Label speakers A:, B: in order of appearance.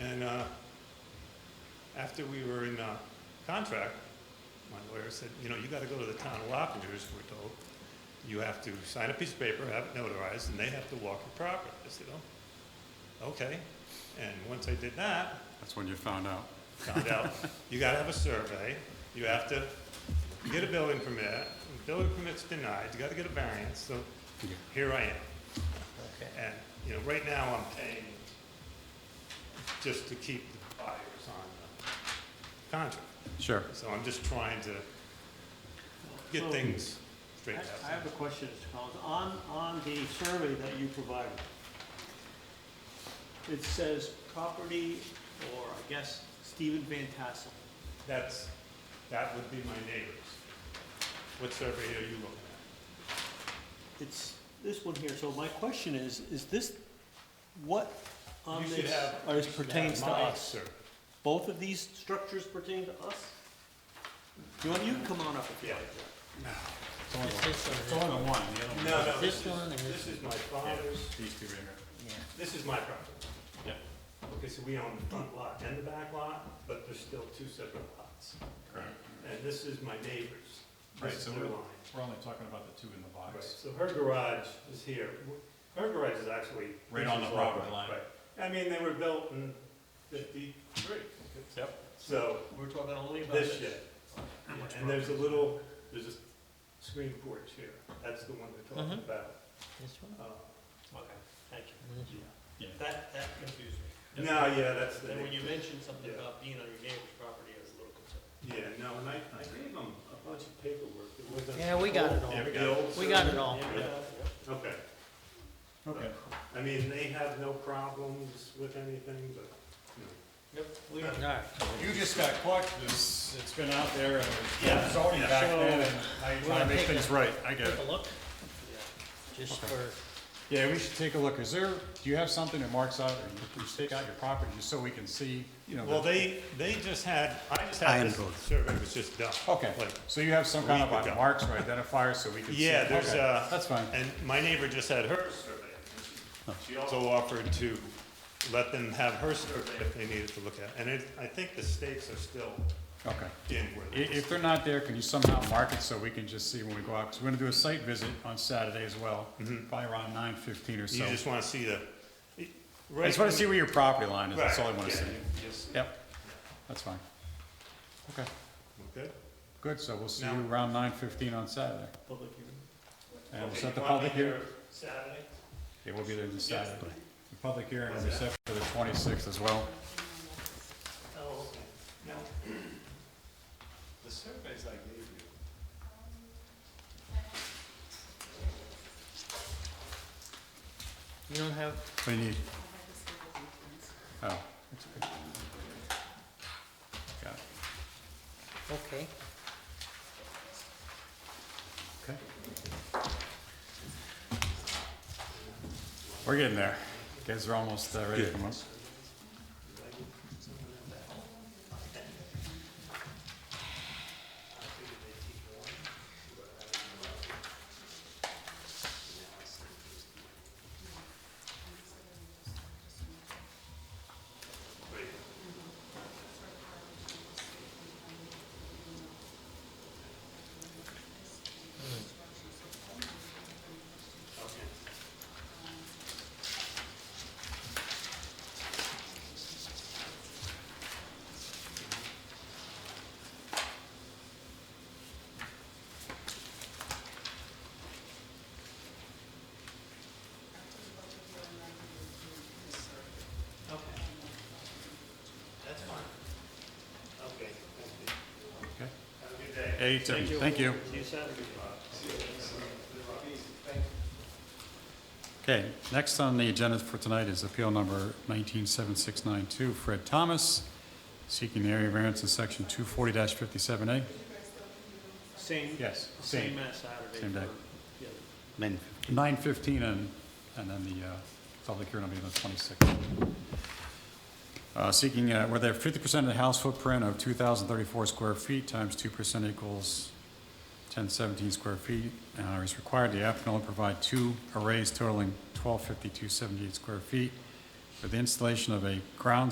A: in, uh, after we were in uh, contract, my lawyer said, you know, you got to go to the town of Lockingers, we're told. You have to sign a piece of paper, have it notarized, and they have to walk your property. I said, oh, okay. And once I did that,
B: That's when you found out.
A: found out, you gotta have a survey, you have to get a building permit, When building permit's denied, you gotta get a variance, so here I am.
C: Okay.
A: And, you know, right now I'm paying just to keep the buyers on the contract.
B: Sure.
A: So I'm just trying to get things
C: I
A: straightened
C: I
A: out.
C: have a question, Mr. Collins. On, on the survey that you provided, it says property, or I guess Stephen Van Tassel.
A: That's, that would be my neighbors. What survey are you looking at?
C: It's this one here, so my question is, is this, what on
A: You should
C: this
A: have-
C: or
A: you
C: Oh, this
A: should have
C: pertains to
A: my
C: us?
A: survey.
C: Both of these structures pertain to us? You want, you can come on up if you
A: Yeah.
C: like.
B: It's all in one, the other one.
A: No, no,
D: This
A: this is,
D: one and
A: this is my father's,
B: These two right here.
A: this is my property.
B: Yeah.
A: Okay, so we own the front lot and the back lot, but there's still two separate lots.
B: Correct.
A: And this is my neighbor's,
B: Right,
A: this is
B: so
A: their
B: we're-
A: line.
B: We're only talking about the two in the
A: Right,
B: box.
A: so her garage is here. Her garage is actually.
B: Right on
A: this
B: the
A: is
B: property
A: all
B: line.
A: Right. I mean, they were built in fifty-three,
B: Yep.
A: so
C: We're talking only
A: this shed. Yeah, And there's a little, there's a screen porch here. That's the one we're talking
B: Mm-hmm.
A: about.
D: This one?
A: Uh,
C: Okay, thank
D: This
C: you.
B: Yeah.
C: That, that confused me.
A: No, yeah, that's the.
C: And when you mentioned something
A: Yeah.
C: about being on your neighbor's property, I was a little concerned.
A: Yeah, no, and I, I gave them a bunch of paperwork that wasn't.
D: Yeah, we got it all.
B: Yeah, we got it.
A: Bills
D: We got
A: or-
D: it all.
A: Okay,
B: Okay.
A: I mean, they have no problems with anything, but, you
C: Yep, we
A: know.
D: All right.
B: You just got caught, this, it's been out there and
A: Yeah,
B: it's already
A: yeah.
B: back
D: So-
B: then and I
D: We're
B: try to
D: gonna
B: make
D: take
B: things right, I get
D: Take
B: it.
D: a look,
C: yeah.
D: just
B: Okay.
D: for,
B: Yeah, we should take a look. Is there, do you have something that marks out, or you- you stake out your property just so we can see, you know?
A: Well,
B: the-
A: they, they just had, I just
E: I
A: had
E: am
A: this
E: both.
A: survey was just done.
B: Okay,
A: like-
B: so you have some kind of
A: week
B: like
A: ago.
B: marks or identifiers so we can see?
A: Yeah, there's
B: Okay,
A: a.
B: That's fine. Oh.
A: And my neighbor just had her survey. She also offered to let them have her survey if they needed to look at. it. And it, I think the stakes are still
B: Okay.
A: in where
B: I- If
A: they.
B: they're not there, can you somehow mark it so we can just see when we go out? Because we're gonna do a site visit on Saturday as well, probably around nine fifteen or so.
A: Mm-hmm. You just wanna see the.
B: I just wanna see where your property line is, that's all I
A: Right,
B: wanna
A: yeah,
B: see.
A: you- you'll see.
B: Yep, that's fine. Okay,
A: Okay.
B: good, so we'll see
A: Now-
B: you around nine fifteen on Saturday.
C: Public hearing.
B: And we'll
A: Okay,
B: set
A: you
B: the
A: want me
B: public hearing.
A: here Saturday?
B: Yeah, we'll be there on Saturday.
A: Yes.
B: The public hearing will be set for the twenty-sixth as well.
A: Oh, okay. Now, the surveys I gave you.
D: you don't have,
B: What do you need? Oh. that's good. Got it.
D: okay.
B: Okay. We're getting there. Guys are almost uh, ready to come up.
A: Okay. That's fine. Okay, thank you.
B: Okay.
A: Have a good day.
B: Hey, Tim, thank you.
C: See you Saturday.
B: Okay, next on the agenda for tonight is appeal number 197692, Fred Thomas, seeking the area variance in section 240-57A.
C: Same,
B: Yes,
C: same
B: same,
C: as Saturday.
B: Same day.
C: for- yeah.
B: 9:15 and, and then the uh, public hearing will be on the 26th. Uh, Seeking, uh, where they have 50% of the house footprint of 2,034 square feet times 2% equals 1017 square feet, uh, is required, the applicant will provide two arrays totaling 125278 square feet for the installation of a ground